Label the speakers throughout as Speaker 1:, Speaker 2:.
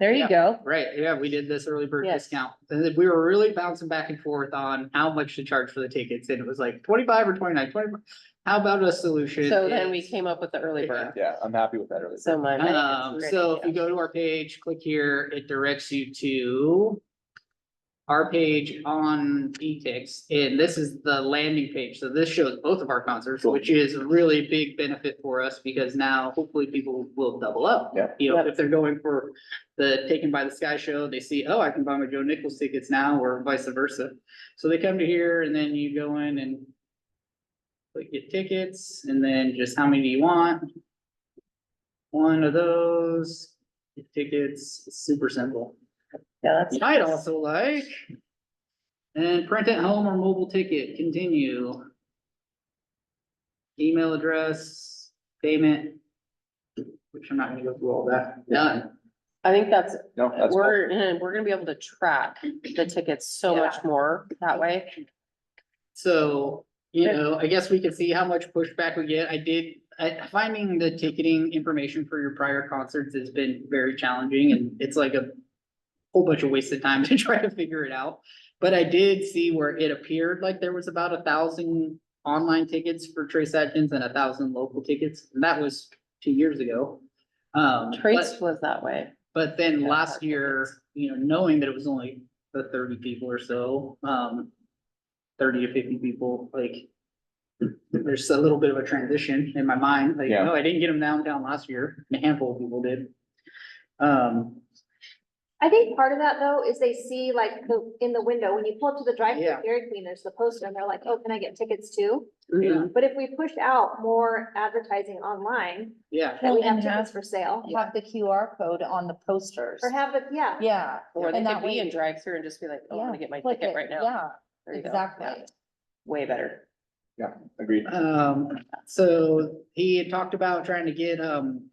Speaker 1: There you go.
Speaker 2: Right, yeah, we did this early bird
Speaker 1: Yes.
Speaker 2: discount, and then we were really bouncing back and forth on how much to charge for the tickets, and it was like twenty-five or 29, 20 How about a solution?
Speaker 1: So then we
Speaker 2: is-
Speaker 1: came up with the early bird.
Speaker 3: Yeah, I'm happy with that early.
Speaker 1: So my.
Speaker 2: Um, so if you go to our page, click here, it directs you to. Our page on etix, and this is the landing page, so this shows both of our concerts,
Speaker 3: Cool.
Speaker 2: which is a really big benefit for us, because now hopefully people will double up.
Speaker 3: Yeah.
Speaker 2: You know,
Speaker 1: Yep.
Speaker 2: if they're going for the Taken by the Sky show, they see, oh, I can buy my Joe Nichols tickets now, or vice versa. So they come to here, and then you go in and. Click get tickets, and then just how many do you want? One of those tickets, super simple.
Speaker 1: Yeah, that's.
Speaker 2: I'd also like. And print at home or mobile ticket, continue. Email address, payment. Which I'm not gonna go through all that, done.
Speaker 1: I think that's,
Speaker 3: No,
Speaker 4: uh,
Speaker 3: that's cool.
Speaker 1: we're, eh, we're gonna be able to track the tickets so much more that way.
Speaker 2: So, you
Speaker 1: Okay.
Speaker 2: know, I guess we can see how much pushback we get. I did, I, finding the ticketing information for your prior concerts has been very challenging and it's like a whole bunch of wasted time to try to figure it out. But I did see where it appeared like there was about a thousand online tickets for Trace Adkins and a thousand local tickets. And that was two years ago. Um,
Speaker 1: Trace
Speaker 2: but-
Speaker 1: was that way.
Speaker 2: but then
Speaker 1: Yeah,
Speaker 2: last
Speaker 1: hard
Speaker 2: year, you know, knowing that it was only the thirty people or so, um. Thirty to fifty people, like. There's a little bit of a transition in my mind, like,
Speaker 3: Yeah.
Speaker 2: no, I didn't get them downtown last year, a handful of people did. Um,
Speaker 5: I think part of that though is they see like the, in the window, when you pull up to the drive-through
Speaker 2: Yeah.
Speaker 5: Dairy Queen, there's the poster and they're like, oh, can I get tickets too?
Speaker 2: yeah,
Speaker 5: But if we push out more advertising online,
Speaker 2: yeah,
Speaker 5: that we
Speaker 4: Well,
Speaker 5: have
Speaker 4: and
Speaker 5: tickets
Speaker 4: have-
Speaker 5: for sale.
Speaker 4: have the QR code on the posters.
Speaker 5: Or have it, yeah,
Speaker 4: Yeah.
Speaker 1: Or they
Speaker 4: and that
Speaker 1: could be
Speaker 4: way-
Speaker 1: in drive-through and just be like, oh, I'm gonna
Speaker 4: yeah,
Speaker 1: get my
Speaker 4: click
Speaker 1: ticket
Speaker 4: it.
Speaker 1: right now.
Speaker 4: Yeah,
Speaker 1: There you go. Yeah,
Speaker 4: exactly.
Speaker 1: Way better.
Speaker 3: Agreed.
Speaker 2: um, so he had talked about trying to get, um.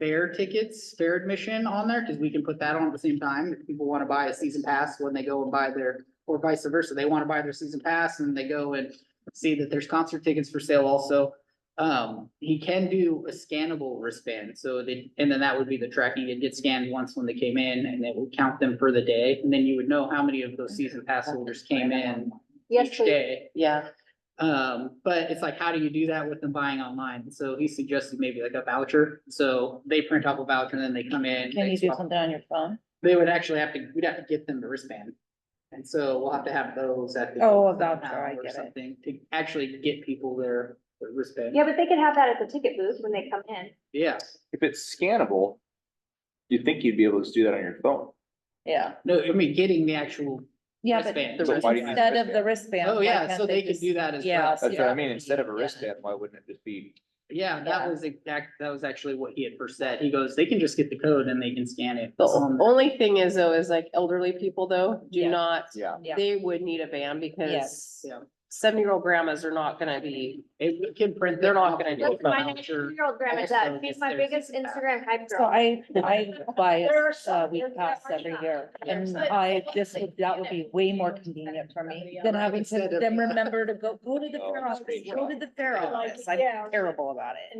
Speaker 2: Fair tickets, fair admission on there, cause we can put that on at the same time, if people wanna buy a season pass when they go and buy their. Or vice versa, they wanna buy their season pass and they go and see that there's concert tickets for sale also. Um, he can do a scannable wristband, so they, and then that would be the tracking, it'd get scanned once when they came in and it would count them for the day. And then you would know how many of those season pass holders came in
Speaker 5: yes,
Speaker 2: each
Speaker 5: please.
Speaker 2: day.
Speaker 1: Yeah,
Speaker 2: Um, but it's like, how do you do that with them buying online? So he suggested maybe like a voucher. So they print off a voucher and then they come in. they
Speaker 4: Can you do
Speaker 2: swap-
Speaker 4: something on your phone?
Speaker 2: They would actually have to, we'd have to get them the wristband. And so we'll have to have those at. the-
Speaker 4: Oh, a voucher, I
Speaker 2: or
Speaker 4: get it.
Speaker 2: Something to actually get people their their wristband.
Speaker 5: Yeah, but they could have that at the ticket booth when they come in.
Speaker 2: Yeah,
Speaker 3: If it's scannable, you'd think you'd be able to do that on your phone.
Speaker 4: Yeah.
Speaker 2: no, I mean, getting the actual,
Speaker 4: Yeah, but
Speaker 2: wristband.
Speaker 3: So why do you need
Speaker 4: instead of the
Speaker 3: wristband?
Speaker 4: wristband.
Speaker 2: Oh,
Speaker 4: why
Speaker 2: yeah,
Speaker 4: can't
Speaker 2: so they could
Speaker 4: just-
Speaker 2: do that as
Speaker 4: Yeah,
Speaker 2: well.
Speaker 4: so
Speaker 3: That's what I
Speaker 4: that
Speaker 3: mean.
Speaker 4: would
Speaker 3: Instead of a
Speaker 4: be- yeah.
Speaker 3: wristband, why wouldn't it just be?
Speaker 2: yeah, that
Speaker 4: Yeah.
Speaker 2: was exact, that was actually what he had first said. He goes, they can just get the code and they can scan it.
Speaker 1: the
Speaker 2: on
Speaker 1: o- only thing is though, is like elderly people though, do
Speaker 4: Yeah.
Speaker 1: not,
Speaker 3: Yeah.
Speaker 4: Yeah.
Speaker 1: they would need a van because
Speaker 4: Yes.
Speaker 2: Yeah.
Speaker 1: seventy-year-old grandmas are not gonna be,
Speaker 2: It we can print.
Speaker 1: They're
Speaker 2: that
Speaker 1: not
Speaker 2: off
Speaker 1: gonna
Speaker 2: and
Speaker 1: do
Speaker 2: get
Speaker 1: it.
Speaker 5: That's
Speaker 2: the
Speaker 5: my
Speaker 2: voucher.
Speaker 5: ninety-year-old grandma
Speaker 2: Yes,
Speaker 5: does.
Speaker 2: so
Speaker 5: She's
Speaker 2: yes,
Speaker 5: my
Speaker 2: there's
Speaker 5: biggest
Speaker 2: that.
Speaker 5: Instagram hype
Speaker 4: So
Speaker 5: girl.
Speaker 4: I, I buy
Speaker 5: There are
Speaker 4: a uh,
Speaker 5: some-
Speaker 4: week
Speaker 5: there
Speaker 4: pass
Speaker 5: are
Speaker 4: every
Speaker 5: some.
Speaker 4: year
Speaker 5: There's
Speaker 4: and
Speaker 5: some.
Speaker 4: I, this would, that would be way more convenient for me than having to
Speaker 2: Instead of-
Speaker 4: then remember to go, go to the
Speaker 3: Oh,
Speaker 4: fair office,
Speaker 3: screenshot.
Speaker 4: go to the fair office. I'm
Speaker 5: Yeah.
Speaker 4: terrible about it.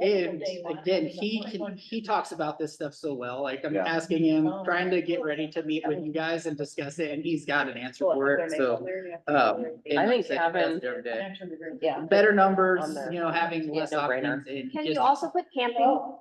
Speaker 2: And again, he can, he talks about this stuff so well, like I'm
Speaker 3: Yeah.
Speaker 2: asking him,
Speaker 5: Oh.
Speaker 2: trying to get ready to meet with you guys and discuss it, and he's got an answer for it, so. Um. and
Speaker 1: I
Speaker 2: like
Speaker 1: think
Speaker 2: said, he does
Speaker 1: Gavin-
Speaker 2: it every day.
Speaker 4: Yeah.
Speaker 2: Better numbers,
Speaker 1: On there.
Speaker 2: you know, having
Speaker 1: Yeah,
Speaker 2: less
Speaker 1: no-brainer.
Speaker 2: options and.
Speaker 5: Can
Speaker 2: just, uh,
Speaker 5: you also put camping
Speaker 4: Oh.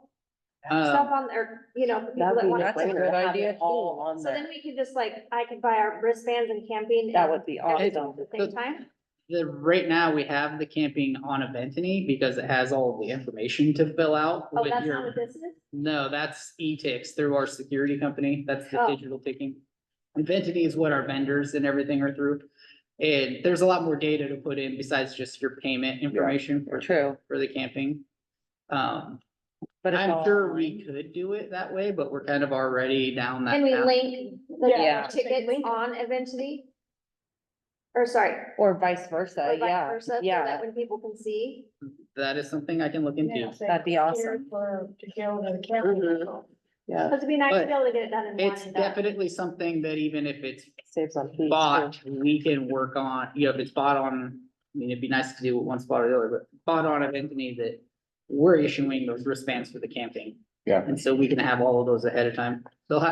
Speaker 5: stuff
Speaker 2: um,
Speaker 5: on, or, you know, for people
Speaker 1: that'd
Speaker 5: that
Speaker 1: be
Speaker 5: want
Speaker 4: That's a
Speaker 1: no-brainer
Speaker 4: good
Speaker 1: to have
Speaker 4: idea,
Speaker 1: it all
Speaker 4: too.
Speaker 1: on
Speaker 5: So then
Speaker 1: there.
Speaker 5: we could just like, I could buy our wristbands and camping.
Speaker 4: That
Speaker 5: and
Speaker 4: would be
Speaker 5: everything
Speaker 4: awesome.
Speaker 5: At the same time,
Speaker 2: The, right now, we have the camping on Aventany because it has all the information to fill out
Speaker 5: oh,
Speaker 2: with
Speaker 5: that's not
Speaker 2: your
Speaker 5: what this is?
Speaker 2: No, that's E E-Tix through our security company. That's the
Speaker 5: Oh.
Speaker 2: digital ticking. Inventity is what our vendors and everything are through. And there's a lot more data to put in besides just your payment information for,
Speaker 1: True,
Speaker 2: for the camping. Um,
Speaker 1: but. it's
Speaker 2: I'm
Speaker 1: all
Speaker 2: sure we
Speaker 1: online.
Speaker 2: could do it that way, but we're kind of already down that
Speaker 5: Can we
Speaker 2: path.
Speaker 5: link the
Speaker 4: Yeah.
Speaker 5: tickets on eventually? Or sorry.
Speaker 4: Or vice
Speaker 5: or
Speaker 4: versa,
Speaker 5: vice
Speaker 4: yeah,
Speaker 5: versa, so
Speaker 4: yeah.
Speaker 5: That when people can see.
Speaker 2: That is something I can look into.
Speaker 4: That'd be awesome.
Speaker 6: For, to go to the
Speaker 1: Mhm.
Speaker 6: camera.
Speaker 1: Yeah,
Speaker 5: Cause it'd be nice
Speaker 2: But
Speaker 5: to be able to get it done in one
Speaker 2: It's
Speaker 5: and done.
Speaker 2: definitely something that even if it's
Speaker 1: saves on fees. too.
Speaker 2: bought, we can work on, you know, if it's bought on, I mean, it'd be nice to do with one spot or the other, but bought on of Anthony that we're issuing those wristbands for the camping.
Speaker 3: Yeah.
Speaker 2: And so we can have all of those ahead of time. They'll have,